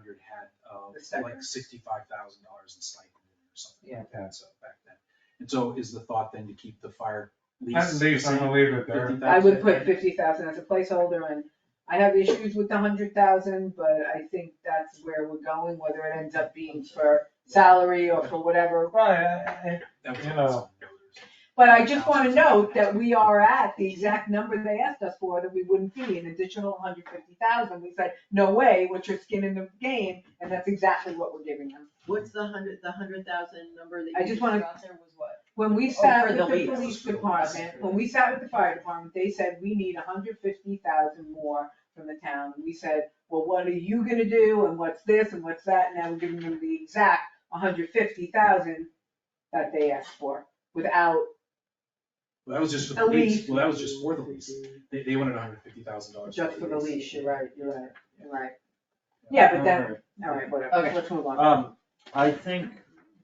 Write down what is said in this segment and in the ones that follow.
had, um, The stipend? like sixty-five thousand dollars in stipend or something like Yeah. that, so back then. And so is the thought then to keep the fire lease? At least, I'm gonna leave it there. $50,000? I would put fifty thousand as a placeholder and I have issues with the hundred thousand, but I think that's where we're going, whether it ends up being for salary or for whatever. Right, I- I- That was You awesome. know. But I just wanna note that we are at the exact number they asked us for, that we wouldn't be an additional hundred fifty thousand. We said, no way, what's your skin in the game? And that's exactly what we're giving them. What's the hundred, the hundred thousand number I that you just just wanna- out there was what? When we Oh, sat for with the the lease. police department, when we sat with the fire department, they said, we need hundred fifty thousand more from the town. We said, well, what are you gonna do and what's this and what's that? Now we're giving them the exact hundred fifty thousand that they asked for without, Well, that was just for the A lease, lease. well, that was just for the lease, they, they wanted hundred fifty thousand dollars. just for the lease, you're right, you're right, you're right. Yeah. Yeah, but that, all right, whatever, Okay. let's move on. Um, I think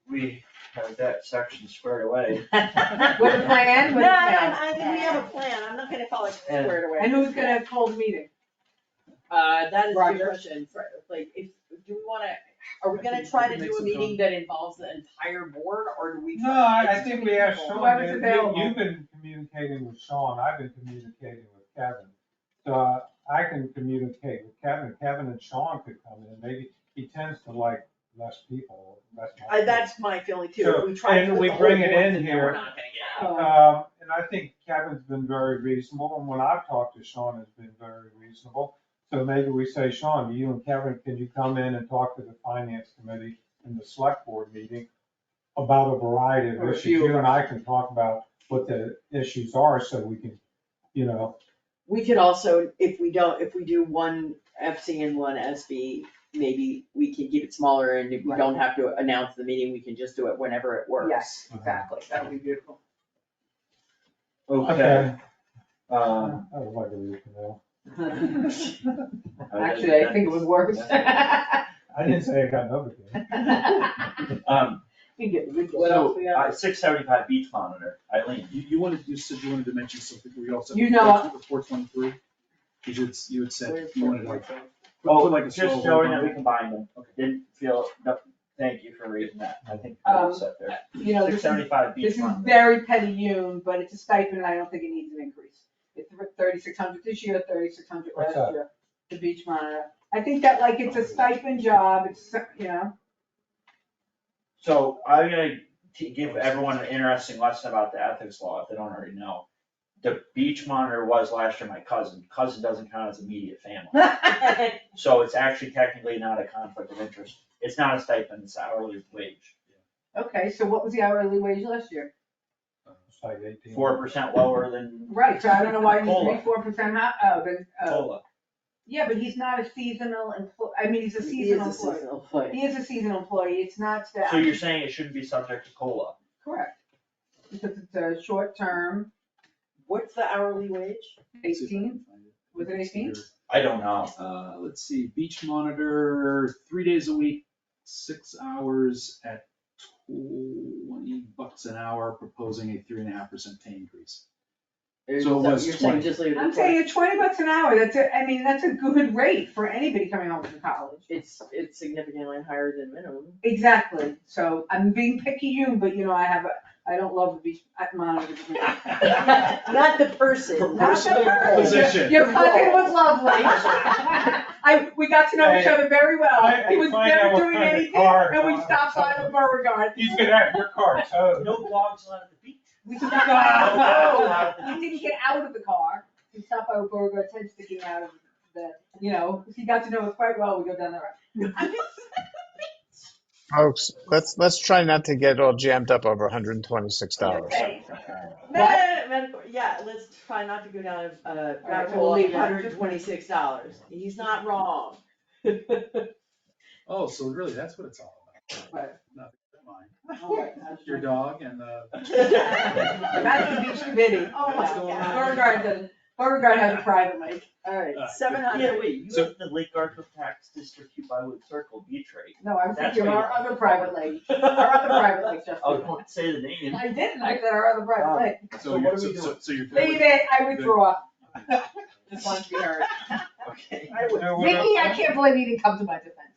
we have that section squared away. With the plan, with the No, I, plan. I think we have a plan, I'm not gonna call it And- squared away. And who's gonna hold the meeting? Uh, that is Roger. your question, Fred. like, if, do you wanna, are we I gonna think try we can to do make a some meeting that involves the entire board, or do we? No, I, I think we have Sean, Whoever's You- available. you, you've been communicating with Sean, I've been communicating with Kevin. So uh, I can communicate with Kevin, Kevin and Sean could come in, maybe, he tends to like less people, less. I, that's my feeling too, So, if we try and to put we the whole bring it board in there, we're here. not gonna get Oh, Um, and I think Kevin's been very reasonable, and when I've talked to Sean, has been very reasonable. So maybe we say, Sean, you and Kevin, can you come in and talk to the finance committee in the select board meeting about a variety of Or a issues? few. You and I can talk about what the issues are, so we can, you know, We could also, if we don't, if we do one FC and one SB, maybe we can keep it smaller and if we Right. don't have to announce the meeting, we can just do it whenever it works. Yes, exactly, that would be beautiful. Okay, okay, I um, would like to leave now. Actually, I think it was worse. I didn't say I got another thing. um, You get ridiculous. so, uh, six seventy-five beach monitor, Eileen, You, you wanted, you said you wanted to mention something, we also. You know- Four twenty-three, you had, you had said Where's you wanted like. Portland? put- put like a Oh, just small showing logo. that we combined them, Okay. didn't feel, no, thank you for reading that, I think Um, we're set there. You know, Six this is, this seventy-five beach is monitor. very petty Yoon, but it's a stipend, and I don't think it needs an increase. It's thirty-six hundred this year, thirty-six hundred What's last that? year, the beach monitor. I think that like it's a stipend job, it's, you know, So I'm gonna t- give everyone an interesting lesson about the ethics law, if they don't already know. The beach monitor was last year my cousin, cousin doesn't count as immediate family, so it's actually technically not a conflict of interest, it's not a stipend, it's hourly wage. okay, so what was the hourly wage last year? It's like eighteen. Four percent lower than Right, so I don't know why he's Cola. three, four percent high, oh, but, uh, cola. yeah, but he's not a seasonal employee, I mean, he's a He is seasonal employee. seasonal employee. He is a seasonal employee, it's not staff. So you're saying it shouldn't be subject to cola? Correct. Because it's a short term, What's the hourly wage? See if I can eighteen, find it. was it eighteen? I don't know. Uh, let's see, beach monitor, three days a week, six hours at twenty bucks an hour, proposing a three and a half percent pay increase. Or So it so- was You're saying 20. just leave it at I'm 20. saying at twenty bucks an hour, that's a, I mean, that's a good rate for anybody coming home from college. It's, it's significantly higher than minimum. Exactly, so I'm being picky you, but you know, I have, a I don't love the beach, I monitor. Not the person. For Not personal the role. position. Your cousin was lovely. I, we got to know each other very well, he was never doing anything, and we stopped by the Beauregard. He's gonna have your car towed. No blogs allowed at the beach. We stopped by, no, we didn't get out of the car, we stopped by Beauregard's head sticking out of the, you know, he got to know us quite well, we go down the road. Folks, let's, let's try not to get all jammed up over $126. Okay. Meta- Metaphor, yeah, let's try not to go down a, uh, rabbit we'll hole leave of it. hundred and twenty-six dollars. He's not wrong. Oh, so really, that's what it's all about. Right. Nothing but mine. Your That's dog and the. the beach committee. Oh my What's going God. on? Beauregard doesn't, Beauregard has a private lake. Alright, Uh, seven Yeah, hundred. wait, you So- have the Lake Garfield Tax District, you Byward Circle beach rate. No, I was That's thinking what our you- other private lake, our other private lake, Oh, Justin. don't say the name. I didn't, I said our other private lake. So So you're, what are so, we so- so you're. good with- Leave it, I withdraw. Okay. Just wanted to be heard. Okay. I would- Yeah, we're- Vicky, I can't believe you didn't come to my defense.